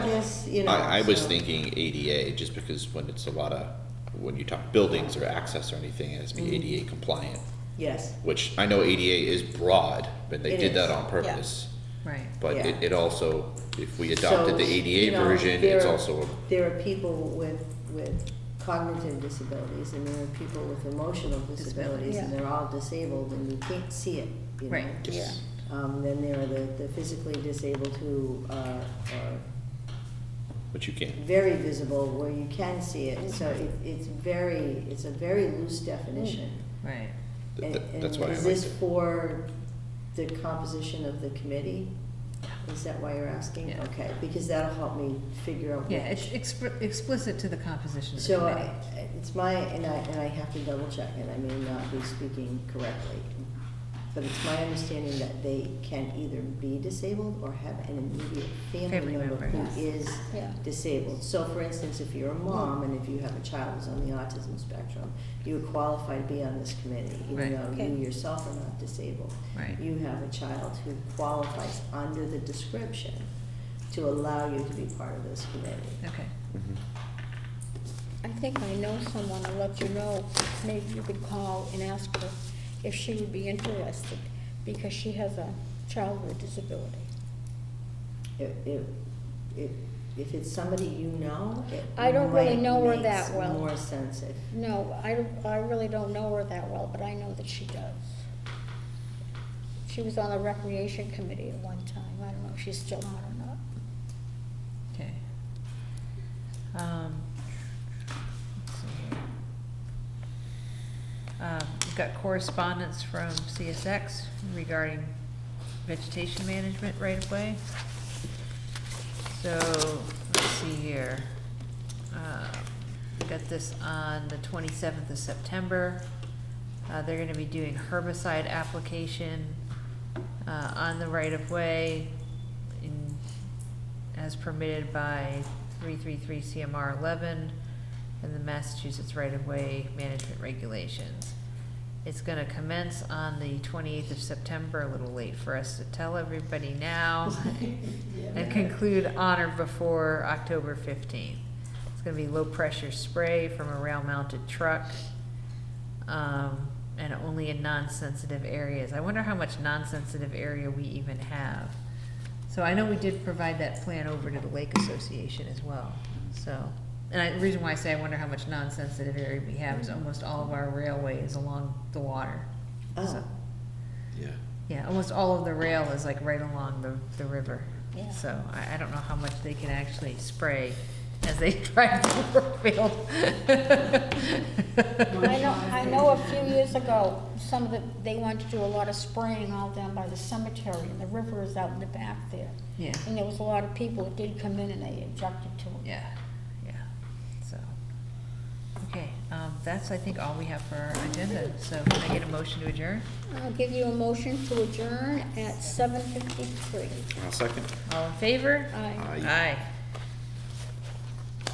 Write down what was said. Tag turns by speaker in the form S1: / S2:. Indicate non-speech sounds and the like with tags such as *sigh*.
S1: you know.
S2: I, I was
S1: so-
S2: thinking ADA, just because when it's a lot of, when you talk buildings or access or anything, it has
S1: Mm-hmm.
S2: to be ADA compliant,
S1: Yes,
S2: which I know ADA is broad, but they
S1: It
S2: did that
S1: is,
S2: on purpose.
S3: Right.
S2: But
S1: Yeah.
S2: it, it also, if we adopted the
S1: So, you
S2: ADA
S1: know,
S2: version, it's
S1: there-
S2: also,
S1: there are people with, with cognitive disabilities and there are people with emotional disabilities and
S4: Yeah.
S1: they're all disabled and you can't see it, you know.
S3: Right.
S2: yes,
S1: Um, then there are the, the physically disabled who uh, are
S2: but you can.
S1: very visible where you can see it. So
S3: Mm-hmm.
S1: it, it's very, it's a very loose definition.
S3: Right.
S2: Th-
S1: And-
S2: th- That's
S1: and
S2: why I
S1: Is
S2: liked
S1: this
S2: it.
S1: for the composition of the committee? Is that why you're asking?
S3: Yeah.
S1: Okay, because that'll help me figure out
S3: Yeah, it's
S1: which.
S3: expr- explicit to the composition of the
S1: So
S3: committee.
S1: I- it's my, and I, and I have to double check, and I may not be speaking correctly. But it's my understanding that they can either be disabled or have an immediate family
S3: Family
S1: member
S3: member,
S1: who
S4: yes.
S1: is
S4: Yeah.
S1: disabled. So for instance, if you're a mom and if you have a child who's on the autism spectrum, you would qualify to be on this committee, even
S3: Right.
S1: though you
S4: Okay.
S1: yourself are not disabled.
S3: Right.
S1: You have a child who qualifies under the description to allow you to be part of this committee.
S3: Okay.
S2: Mhm.
S4: I think I know someone, I'll let you know, maybe you could call and ask her if she would be interested, because she has a child with a disability.
S1: If, if, if, if it's somebody you know, it
S4: I don't really
S1: might
S4: know her
S1: makes
S4: that well.
S1: more sense if
S4: No, I, don't- I really don't know her that well, but I know that she does. She was on the recreation committee at one time, I don't know if she's still on or not.
S3: Okay. Um, let's see here. Um, we've got correspondence from CSX regarding vegetation management right of way. So, let's see here. Uh, we got this on the twenty-seventh of September. Uh, they're gonna be doing herbicide application, uh, on the right of way in, as permitted by three-three-three CMR eleven and the Massachusetts right of way management regulations. It's gonna commence on the twenty-eighth of September, a little late for us to tell everybody
S1: *laughs*
S3: now. And conclude honor before October fifteenth. It's gonna be low-pressure spray from a rail-mounted truck. Um, and only in non-sensitive areas. I wonder how much non-sensitive area we even have. So I know we did provide that plan over to the Lake Association as well, so. And I, the reason why I say I wonder how much non-sensitive area we have is almost all of our railway is along the water.
S1: Oh.
S3: So,
S2: Yeah.
S3: Yeah, almost all of the rail is like right along the, the river.
S4: Yeah.
S3: So I, I don't know how much they can actually spray as they *laughs* drive through Brookfield.
S4: I know, I know a few years ago, some of the, they wanted to do a lot of spraying all down by the cemetery, and the river is out in the back there.
S3: Yeah.
S4: And there was a lot of people that did come in and they objected to it.
S3: Yeah, yeah, so, okay, um, that's, I think, all we have for our agenda, so can I get a motion to adjourn?
S4: I'll give you a motion to adjourn at seven fifty-three.
S2: I'll second.
S3: All in favor?
S4: Aye.
S2: Aye.
S3: Aye.